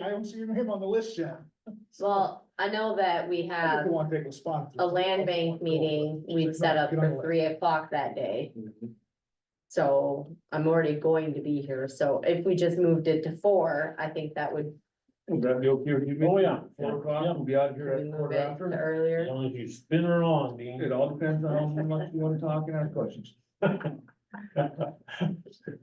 I haven't seen him on the list yet. Well, I know that we I think have we want to take a spot. a land bank meeting we've set up for three o'clock that day. So I'm already going to be here, so if we just moved it to four, I think that would Would that be okay with you? Oh, yeah. Four o'clock, we'll be out here at move quarter it to after. As earlier. long as you spin her on, Dean. It all depends on how much you wanna talk and ask questions.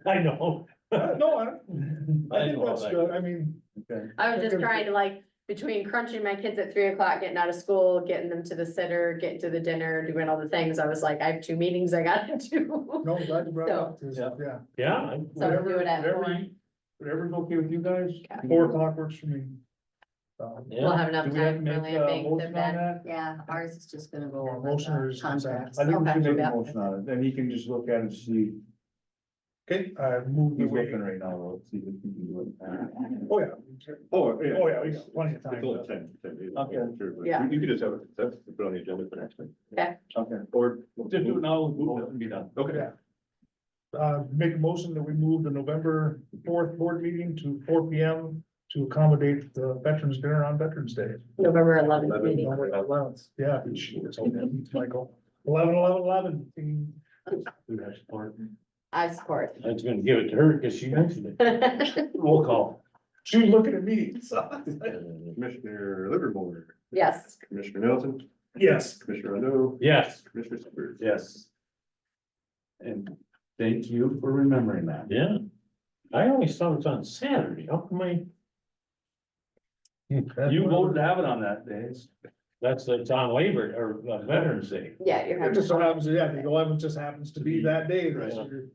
I know. Uh, No, I, don't- I I think know that's that. good. I mean, Okay. I was just trying to like, between crunching my kids at three o'clock, getting out of school, getting them to the sitter, getting to the dinner, doing all the things, I was like, I have two meetings I gotta do. no, I'm glad you brought it up. 'cause, Yeah. Yeah, Yeah, I- So we'll do it at Whatever- four, whatever you- Whatever's okay with you guys. Okay. four o'clock works for me. Um, we'll yeah, have enough Do we have to time make for land a bank motion to on vet. that? Yeah, ours is just gonna go Or over motion or the is it consent? contracts. I think we Okay. should make Yeah. a motion on it, and he can just look at it and see, Okay, I moved he's away. looking right now, though, see if he can do it. Oh, yeah. Oh, yeah. Oh, yeah, we got plenty of time. It's only ten, ten days. Okay. Sure, but Yeah. You you could just have it, that's put on the agenda for next time. Okay. Okay. Or. Just do it now, we'll move That would Be done. Yeah. Uh, make a motion that we move the November fourth board meeting to four P M to accommodate the Veterans Dinner on Veterans Day. November eleventh Eleven. meeting. November 11th. Yeah, it's okay, Michael. Eleven, eleven, eleven. Ding. do that support. I support. I was gonna give it to her because she mentioned it. Roll call. She was looking at me, so. Commissioner Livermore, Yes, Commissioner Nelson, Yes. Commissioner Rondo, Yes. Commissioner Seaver. Yes. And thank you for remembering that. Yeah. I always thought it was on Saturday. How come I, You voted to have it on that day. It's- that's, it's on Labor or uh, Veterans Day. yeah, you're It having. just so happens, yeah, the eleventh just happens to be that day, right? So you're-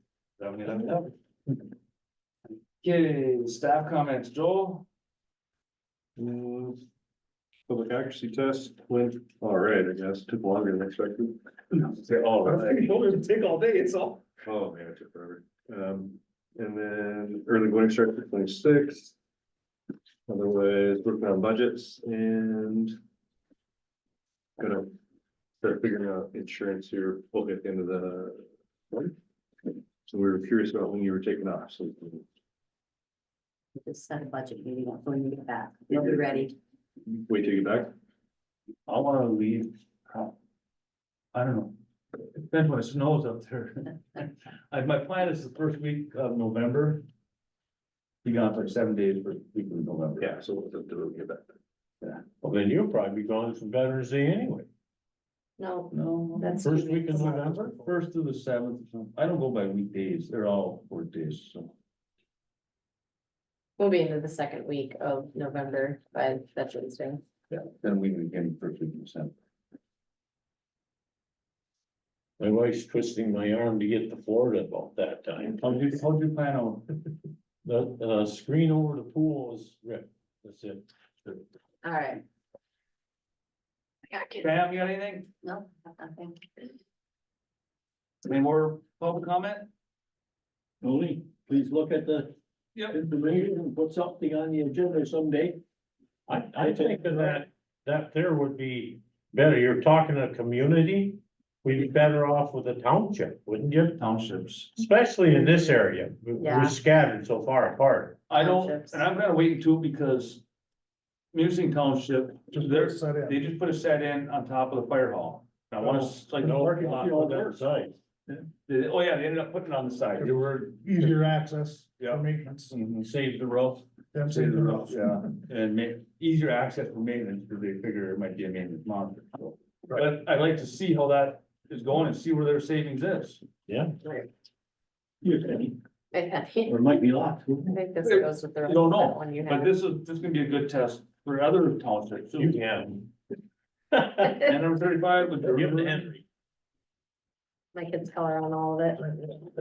Okay, staff comments, Joel? Mm, Public accuracy test went all right, I guess, took longer than expected. Say all I right. think it'll just take all day, it's all. Oh, man, it took forever. Um, and then early voting starts at twenty-six. Otherwise, working on budgets and. Gonna start figuring out insurance here, hopefully at the end of the. month. So we were curious about when you were taking off, so. we can Just set a budget meeting up when you get back. You'll be ready. Wait till you get back. I wanna leave. prob- I don't know. It Depends when it snows up there. I, my plan is the first week of November. Be gone for seven days for the week of November. Yeah, so we'll do it when we get back. Well, then you'll probably be gone from Veterans Day anyway. No, No. that's. First week in November? First to the seventh, I don't go by weekdays, they're all work days, so. We'll be into the second week of November by Veterans Day. Yeah. Then we can get first week of December. My wife's twisting my arm to get to Florida about that time. How'd you, how'd you plan on? The, the screen over the pool is ripped. That's it. All right. Pam, you got anything? No, nothing. Any more public comment? Only, please look at the. Yep. Information and put something on the agenda someday. I, I think that, that there would be better. You're talking a community. We'd be better off with a township, wouldn't you? Townships. Especially in this area. We- Yeah. We're scattered so far apart. I don't, Townships. and I'm gonna wait until because. Musing Township, Just they're, set in. they just put a set in on top of the fire hall. And I wanna, s- like, No, parking not lot, on that side. they- oh yeah, they ended up putting it on the side, they were. Easier access Yeah. for maintenance. Save the roof. That's Save it. the roof, yeah, and make easier access for maintenance, because they figure it might be a maintenance monitor. so. But I'd like to see how that is going and see where their savings is. You're ready. I think Or it might be locked. I think this goes with the. You don't know, that one you But have. this is, this is gonna be a good test for other townships. You can. And number thirty-five, with the Give it to river. Henry. My kids color on all of it.